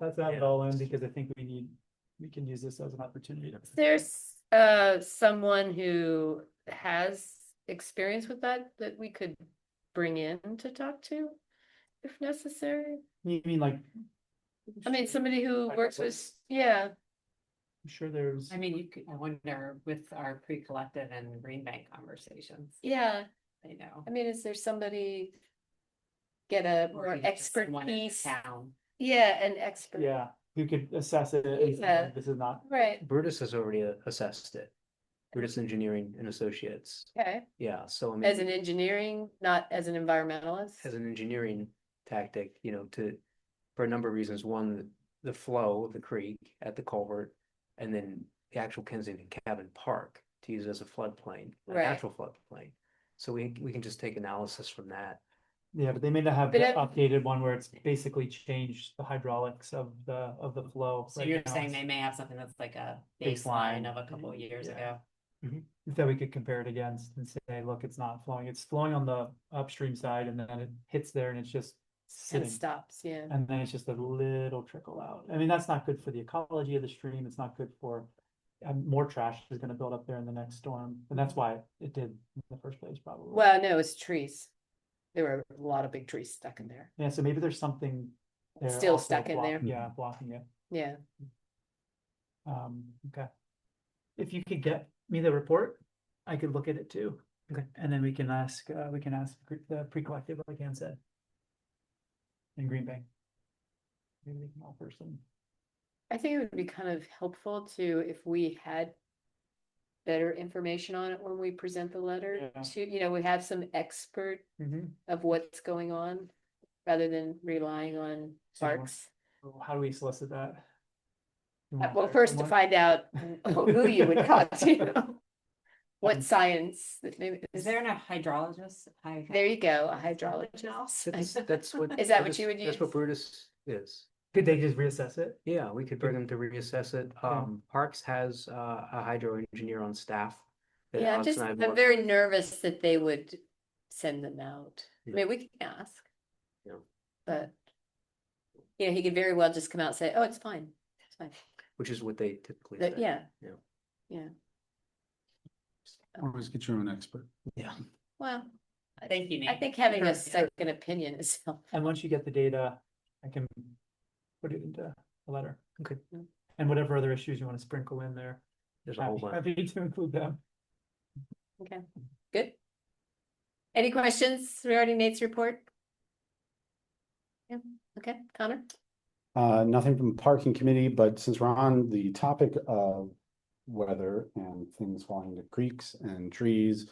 let's add it all in because I think we need, we can use this as an opportunity to. There's uh someone who has experience with that that we could bring in to talk to if necessary. You mean like? I mean, somebody who Like a works with, voice. yeah, I'm Sure there's, I mean, you could, I wonder with our pre-collective and Green Bank conversations, yeah. I know. I mean, is there somebody get a or more even just expert someone in piece? Town. Yeah, an expert. yeah, who could assess it and Yeah. say, this is not, Right, Brutus has already uh, assessed it. Brutus Engineering and Associates, okay. yeah, so I mean. As an engineering, not as an environmentalist. as an engineering tactic, you know, to, for a number of reasons, one, the flow of the creek at the culvert. And then the actual Kensington Cabin Park to use as a floodplain, a Right. natural floodplain. So we, we can just take analysis from that. yeah, but they may not have the But I- updated one where it's basically changed the hydraulics of the, of the flow. So right you're now. saying they may have something that's like a Baseline. baseline of a couple of Mm-hmm. years Yeah. ago. That we could compare it against and say, look, it's not flowing, it's flowing on the upstream side and then it hits there and it's just And sitting. stops, yeah. And then it's just a little trickle out. I mean, that's not good for the ecology of the stream. It's not good for, and more trash is gonna build up there in the next storm. And that's why it did in the first place probably. Well, no, it's trees. There were a lot of big trees stuck in there. Yeah, so maybe there's something. there Still also stuck in block- there. Yeah, blocking it. Yeah, Um, okay. If you could get me the report, I could look at it too. Okay. And then we can ask, uh, we can ask gr- the pre-collective, like Ann said. In Green Bay. Maybe we can offer some. I think it would be kind of helpful to, if we had better information on it when we present the letter, Yeah. to, you know, we have some expert Mhm. of what's going on, rather than relying on So you want- parks. How do we solicit that? You Uh, wanna Well, hire first to someone? find out who you would talk to. What science, that maybe, Is there a hydrologist? Hy- there you go, a hydrologist. That's, that's what. Is that what you Brutus- would That's what use? Brutus is. Could they just reassess it? Yeah, we could bring them to reassess it. Um, Parks has, uh, a hydro engineer on staff. that Yeah, I'm Alex just, and I have I'm worked- very nervous that they would send them out. I Yeah. mean, we can ask. Yeah. But. You know, he could very well just come out and say, oh, it's fine, it's fine, Which is what they typically But say. yeah. Yeah. Yeah. Always get your own expert. Yeah. Well, Thank you, Nate. I think having Sure, a yeah. second opinion is helpful. And once you get the data, I can put it into a letter. Okay. Mm. And whatever other issues you want to sprinkle in there, There's a whole happy, bunch. happy to include them. Good. Any questions regarding Nate's report? Yeah, okay, Connor? Uh, nothing from parking committee, but since we're on the topic of weather and things falling to creeks and trees.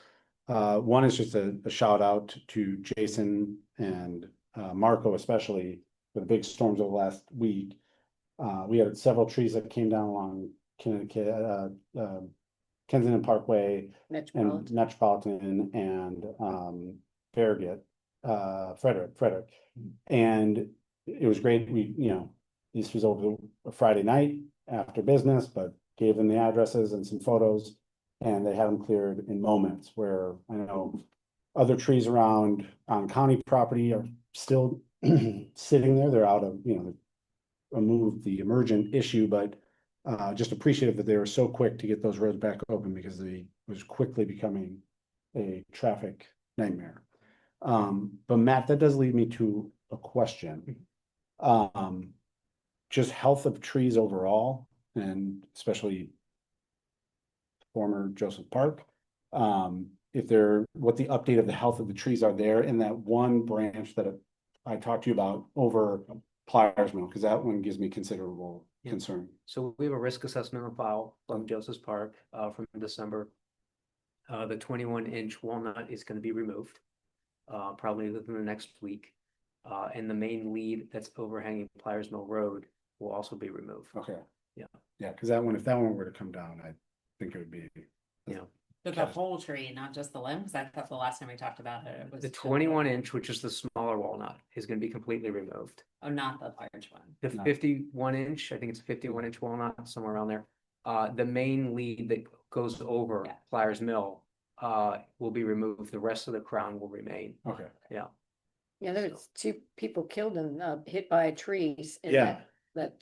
Uh, one is just a, a shout out to Jason and uh, Marco especially for the big storms over the last week. Uh, we had several trees that came down along Connecticut, uh, um, Kensington Parkway. and Metropolitan. Metropolitan and um Farragut, uh Frederick, Frederick. And it was great, we, you know, this was over the Friday night after business, but gave them the addresses and some photos. And they had them cleared in moments where I know other trees around on county property are still sitting there, they're out of, you know. Remove the emergent issue, but uh, just appreciative that they were so quick to get those roads back open because they was quickly becoming a traffic nightmare. Um, but Matt, that does lead me to a question. Um, just health of trees overall and especially former Joseph Park. Um, if they're, what the update of the health of the trees are there in that one branch that I talked to you about over Pliers Mill, because that one gives me considerable Yeah. concern. So we have a risk assessment on file from Joseph's Park, uh, from December. Uh, the twenty-one inch walnut is gonna be removed, uh, probably within the next week. Uh, and the main lead that's overhanging Pliers Mill Road will also be removed. Okay. Yeah. Yeah, because that one, if that one were to come down, I think it would be, But the whole tree, not just the limbs. I thought the last time we talked about it, it was. The just twenty-one inch, which is the smaller walnut, is gonna be completely removed. Oh, not the large one. The Nice. fifty-one inch, I think it's fifty-one inch walnut, somewhere around there. Uh, the main lead that goes over Yeah. Pliers Mill, uh, will be removed. The rest of the crown will remain. okay. Yeah, there so- was two people killed and, uh, hit by trees. in Yeah. that- That